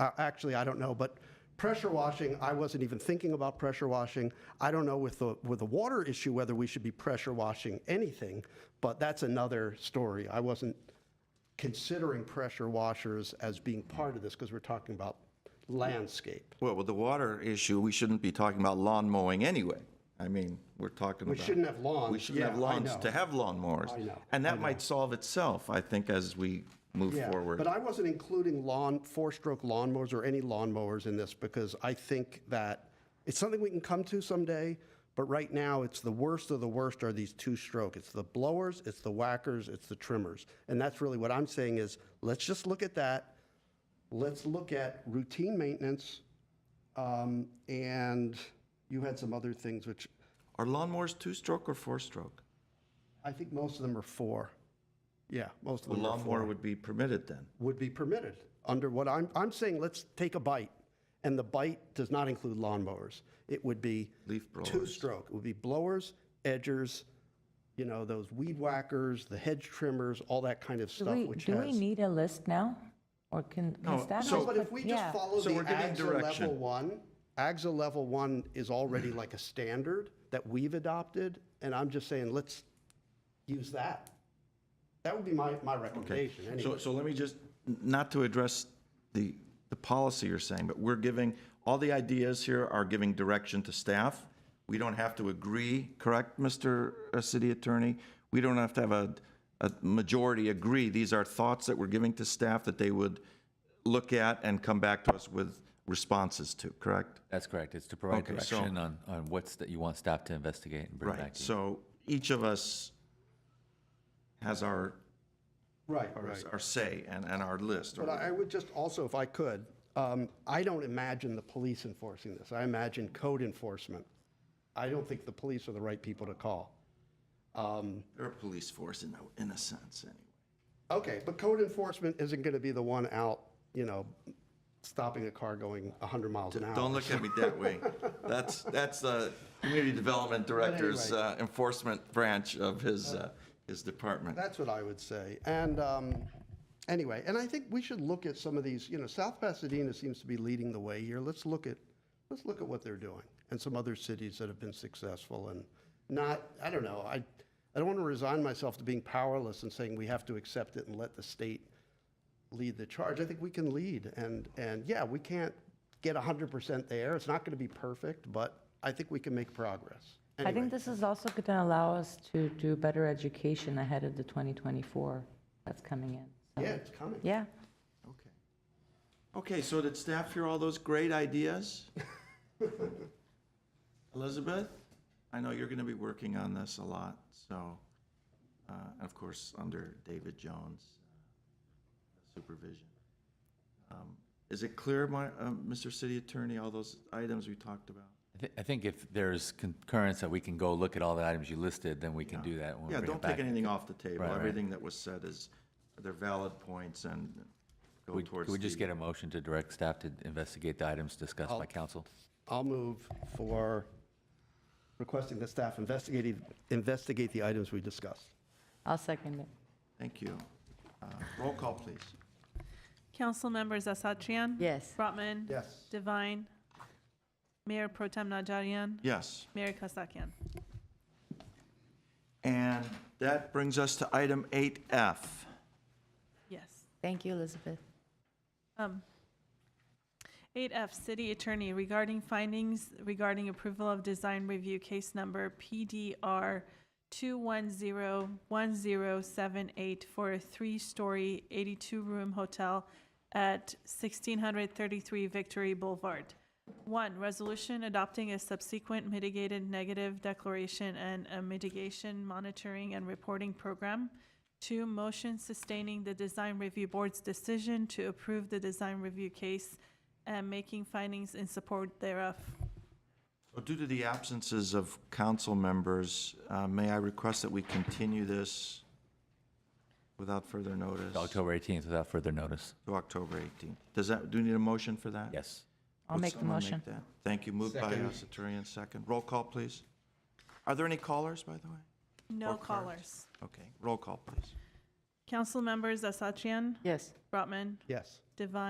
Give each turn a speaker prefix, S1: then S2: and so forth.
S1: uh, actually, I don't know, but pressure washing, I wasn't even thinking about pressure washing. I don't know with the, with the water issue, whether we should be pressure washing anything, but that's another story. I wasn't considering pressure washers as being part of this because we're talking about landscape.
S2: Well, with the water issue, we shouldn't be talking about lawn mowing anyway. I mean, we're talking
S1: We
S2: about.
S1: shouldn't have lawns.
S2: We shouldn't have
S1: Yeah, I
S2: lawns
S1: know.
S2: to have lawn mowers.
S1: I know,
S2: And that might solve itself, I think, as we move
S1: Yeah,
S2: forward.
S1: But I wasn't including lawn, four-stroke lawnmowers or any lawnmowers in this because I think that it's something we can come to someday, but right now, it's the worst of the worst are these two-stroke. It's the blowers, it's the whackers, it's the trimmers. And that's really what I'm saying is, let's just look at that. Let's look at routine maintenance. um, And you had some other things which,
S2: Are lawnmowers two-stroke or four-stroke?
S1: I think most of them are four. Yeah, most of
S2: The
S1: them are four.
S2: lawnmower would be permitted then.
S1: would be permitted under what I'm, I'm saying, let's take a bite. And the bite does not include lawnmowers. It would be
S2: Leaf blowers.
S1: two-stroke. It would be blowers, edgers, you know, those weed whackers, the hedge trimmers, all that kind of
S3: Do
S1: stuff,
S3: we,
S1: which
S3: do we
S1: has.
S3: need a list now? Or can,
S2: No,
S3: can staff?
S2: so-
S3: just
S1: But if
S3: put-
S1: we
S3: yeah.
S1: just follow
S2: So
S1: the
S2: we're giving
S1: AGSA level
S2: direction.
S1: one, AGSA level one is already like a standard that we've adopted, and I'm just saying, let's use that. That would be my, my recommendation anyway.
S2: So, so let me just, not to address the, the policy you're saying, but we're giving, all the ideas here are giving direction to staff. We don't have to agree, correct, Mr. uh, City Attorney? We don't have to have a, a majority agree. These are thoughts that we're giving to staff that they would look at and come back to us with responses to, correct?
S4: That's correct. It's to provide
S2: Okay, so-
S4: direction on, on what's that you want staff to investigate and bring back
S2: Right,
S4: to you.
S2: so each of us has our,
S1: Right,
S2: our-
S1: right.
S2: our say and, and our list. or
S1: But I I would just also, if I could, um, I don't imagine the police enforcing this. I imagine code enforcement. I don't think the police are the right people to call. Um,
S2: They're a police force in a, in a sense, anyway.
S1: Okay, but code enforcement isn't going to be the one out, you know, stopping a car going 100 miles an hour.
S2: Don't look at me that way. That's, that's the community development director's uh, enforcement branch of his, uh, his department.
S1: That's what I would say. And um, anyway, and I think we should look at some of these, you know, South Pasadena seems to be leading the way here. Let's look at, let's look at what they're doing and some other cities that have been successful and not, I don't know, I, I don't want to resign myself to being powerless and saying we have to accept it and let the state lead the charge. I think we can lead and, and yeah, we can't get 100% there. It's not going to be perfect, but I think we can make progress.
S3: I
S1: Anyway.
S3: think this is also going to allow us to do better education ahead of the 2024 that's coming in. So,
S1: Yeah, it's coming.
S3: Yeah.
S2: Okay. Okay, so did staff hear all those great ideas? Elizabeth, I know you're going to be working on this a lot, so, uh, and of course, under David Jones' uh, supervision. Um, Is it clear, my, uh, Mr. City Attorney, all those items we talked about?
S4: I thi- I think if there's concurrence that we can go look at all the items you listed, then we can do that when we
S2: Yeah,
S4: bring it
S2: don't take
S4: back.
S2: anything off the table.
S4: Right, right.
S2: Everything that was said is, they're valid points and go
S4: Would-
S2: towards
S4: Could we just
S2: the-
S4: get a motion to direct staff to investigate the items discussed by council?
S1: I'll move for requesting that staff investigate, investigate the items we discussed.
S3: I'll second it.
S2: Thank you. Uh, Roll call, please.
S5: Council members Asatrian.
S3: Yes.
S5: Brotman.
S1: Yes.
S5: Divine. Mayor Pro Tem Najarian.
S2: Yes.
S5: Mayor Kasakian.
S2: And that brings us to item 8F.
S5: Yes.
S3: Thank you, Elizabeth.
S5: Um, 8F, City Attorney, regarding findings regarding approval of design review case number PDR 2101078 for a three-story, 82-room hotel at 1633 Victory Boulevard. One, resolution adopting a subsequent mitigated negative declaration and a mitigation monitoring and reporting program. Two, motion sustaining the design review board's decision to approve the design review case and making findings in support thereof.
S2: Well, Due to the absences of council members, uh, may I request that we continue this without further notice?
S4: October 18th without further notice.
S2: To October 18th. Does that, do we need a motion for that?
S4: Yes.
S3: I'll
S2: Would
S3: make the
S2: someone
S3: motion.
S2: that? Thank you. Moved by
S1: Second.
S2: us, Attorney, and second. Roll call, please. Are there any callers, by the way?
S5: No
S2: Or cards.
S5: callers.
S2: Okay, roll call, please.
S5: Council members Asatrian,
S3: Yes.
S5: Brotman,
S1: Yes.
S5: Divine.